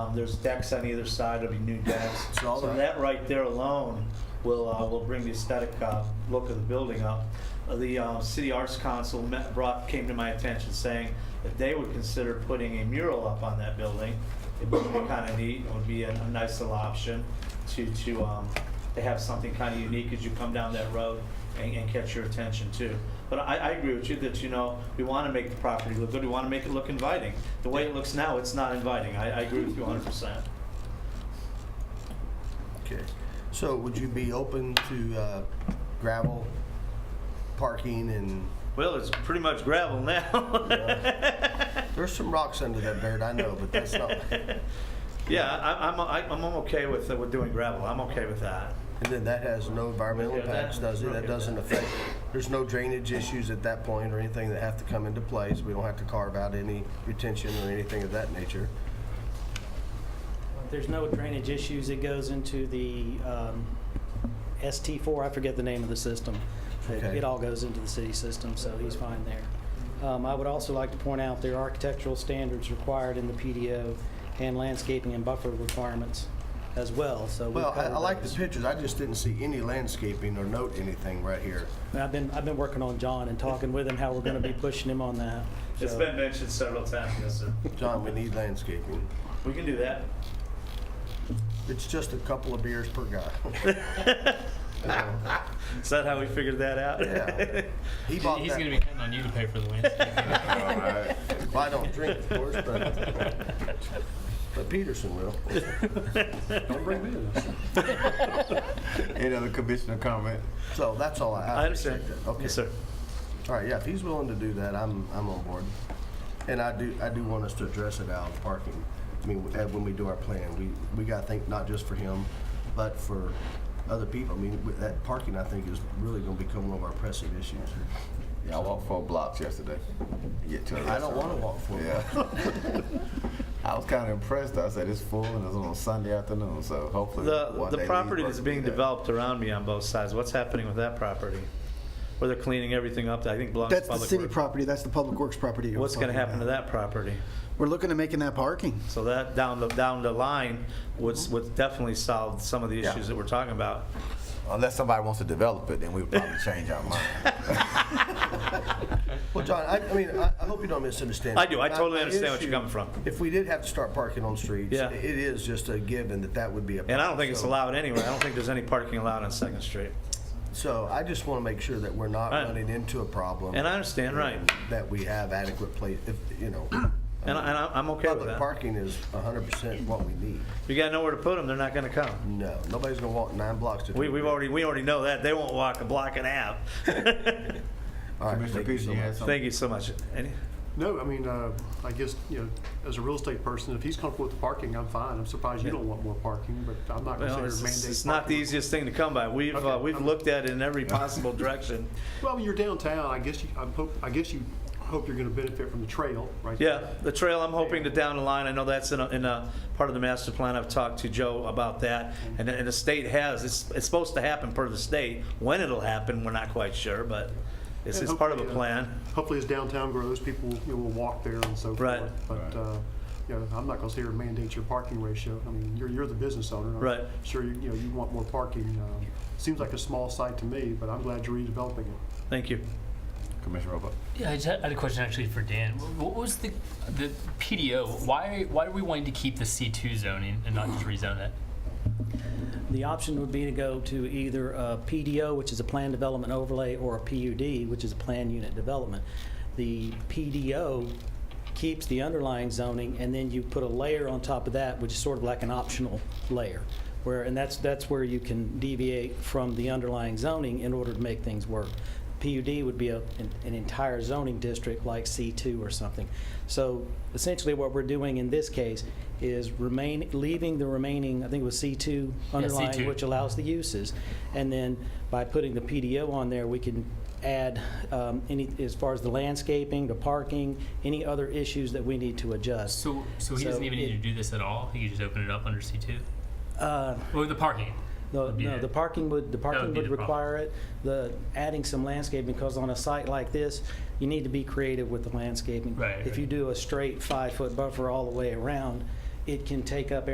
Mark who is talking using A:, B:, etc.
A: Um, There's decks on either side, there'll be new decks.
B: So all
A: So
B: the-
A: that right there alone will, uh, will bring the aesthetic uh, look of the building up. Uh, The uh, City Arts Council met, brought, came to my attention saying that they would consider putting a mural up on that building. It would be kind of neat, it would be a a nice little option to, to, um, to have something kind of unique as you come down that road and, and catch your attention too. But I, I agree with you that, you know, we want to make the property look good, we want to make it look inviting. The way it looks now, it's not inviting, I, I agree with you hundred percent.
B: Okay, so would you be open to uh, gravel parking and,
A: Well, it's pretty much gravel now.
B: there's some rocks under that dirt, I know, but that's not, and
A: Yeah, I- I'm, I- I'm okay with, uh, with doing gravel, I'm okay with that.
B: then that has no environmental
A: Yeah, that-
B: impacts, does it? That doesn't affect, there's no drainage issues at that point or anything that have to come into place. We don't have to carve out any retention or anything of that nature.
C: There's no drainage issues. It goes into the um, ST4, I forget the name of the system. It
B: Okay.
C: it all goes into the city system, so he's fine there. Um, I would also like to point out there are architectural standards required in the PDO and landscaping and buffer requirements as well, so. we've
B: Well, I
C: covered
B: I like the
C: those.
B: pictures, I just didn't see any landscaping or note anything right here.
C: And I've been, I've been working on John and talking with him, how we're going to be pushing him on that.
A: It's
C: so-
A: been mentioned several times, yes, sir.
B: John, we need landscaping.
A: We can do that.
B: It's just a couple of beers per guy.
A: Is that how we figured that out?
B: Yeah. He bought
D: He's
B: that-
D: going to be counting on you to pay for the landscape.
B: Well, I don't drink, of course, but, but Peterson will.
E: Don't bring me to this.
F: Any other commissioner comment?
B: So that's all I.
A: I understand.
B: appreciate that. Okay.
A: Yes, sir.
B: All right, yeah, if he's willing to do that, I'm, I'm on board. And I do, I do want us to address it out of parking. I mean, uh, when we do our plan, we, we gotta think not just for him, but for other people. I mean, with that parking, I think, is really gonna become one of our pressing issues.
F: Yeah, I walked four blocks yesterday. to Get to a
B: I don't
F: restaurant.
B: wanna walk four blocks.
F: Yeah. I was kind of impressed. I said it's full and it's on a Sunday afternoon, so hopefully
A: The,
F: one day
A: the
F: these
A: property that's
F: workers
A: being
F: do that.
A: developed around me on both sides, what's happening with that property? Where they're cleaning everything up that I think belongs to
E: That's the
A: public
E: city
A: works.
E: property, that's the public works property. uh,
A: What's gonna happen to that property?
E: We're looking to making that parking.
A: So that, down the, down the line, would, would definitely solve some of the
F: Yeah.
A: issues that we're talking about.
F: Unless somebody wants to develop it, then we would probably change our mind.
B: Well, John, I, I mean, I, I hope you don't misunderstand.
A: I do. I totally
B: My
A: understand what you're
B: issue-
A: coming from.
B: If we did have to start parking on streets,
A: Yeah.
B: it is just a given that that would be a.
A: And I don't think it's
B: so-
A: allowed anywhere. I don't think there's any parking allowed on Second Street.
B: So I just want to make sure that we're not
A: I-
B: running into a problem.
A: And I understand, right.
B: That we have adequate place, if, you know.
A: And, I- and I- I'm okay with
B: Public
A: that.
B: parking is hundred percent what we need.
A: You got nowhere to put them, they're not gonna come.
B: No, nobody's gonna walk nine blocks to.
A: We, we've already, we already know that. They won't walk a block and a half.
B: All right,
F: Commissioner
B: thank you
F: Peterson,
B: so
F: you had
B: much.
F: something?
A: Thank you so much. Any-
G: No, I mean, uh, I guess, you know, as a real estate person, if he's comfortable with the parking, I'm fine. I'm surprised you don't want more parking, but I'm not
A: Well,
G: considering
A: it's, it's-
G: mandating.
A: it's not the
G: parking.
A: easiest thing to come by. We've, uh,
G: Okay.
A: we've looked at it in every possible direction.
G: Well, you're downtown, I guess you, I hope, I guess you hope you're gonna benefit from the trail, right?
A: Yeah, the trail, I'm hoping that down the line, I know that's in a, in a part of the master plan, I've talked to Joe about that. And, and the state has, it's, it's supposed to happen per the state. When it'll happen, we're not quite sure, but it's,
G: And
A: it's part of a
G: hopefully, uh,
A: plan.
G: Hopefully, as downtown grows, people will, you know, will walk there and so forth.
A: Right.
G: But, uh, you know, I'm not gonna sit here and mandate your parking ratio. I mean, you're, you're the business owner. I'm
A: Right.
G: Sure, you, you know, you want more parking. Um, Seems like a small site to me, but I'm glad you're redeveloping it.
A: Thank you.
F: Commissioner Robo.
D: yeah, I just had I had a question actually for Dan. Wh- What was the the PDO? Why why are we wanting to keep the C two zoning and not just rezone it?
C: The option would be to go to either a PDO, which is a plan development overlay, or a PUD, which is a plan unit development. The PDO keeps the underlying zoning, and then you put a layer on top of that, which is sort of like an optional layer, where, and that's, that's where you can deviate from the underlying zoning in order to make things work. PUD would be a, an, an entire zoning district like C2 or something. So essentially what we're doing in this case is remain, leaving the remaining, I think it was C2 underlying,
D: C2.
C: which allows the uses. And then by putting the PDO on there, we can add um, any, as far as the landscaping, the parking, any other issues that we need to adjust.
D: So so he doesn't
C: So
D: even
C: it-
D: need to do this at all. He can just open it up under C two
C: Uh,
D: or the parking.
C: No,
D: Would be
C: no,
D: it.
C: the parking would, the parking
D: be
C: would
D: the problem.
C: require it, the, adding some landscaping, because on a site like this, you need to be creative with the landscaping.
D: Right,
C: If you
D: right.
C: do a straight five-foot buffer all the way around, it can take up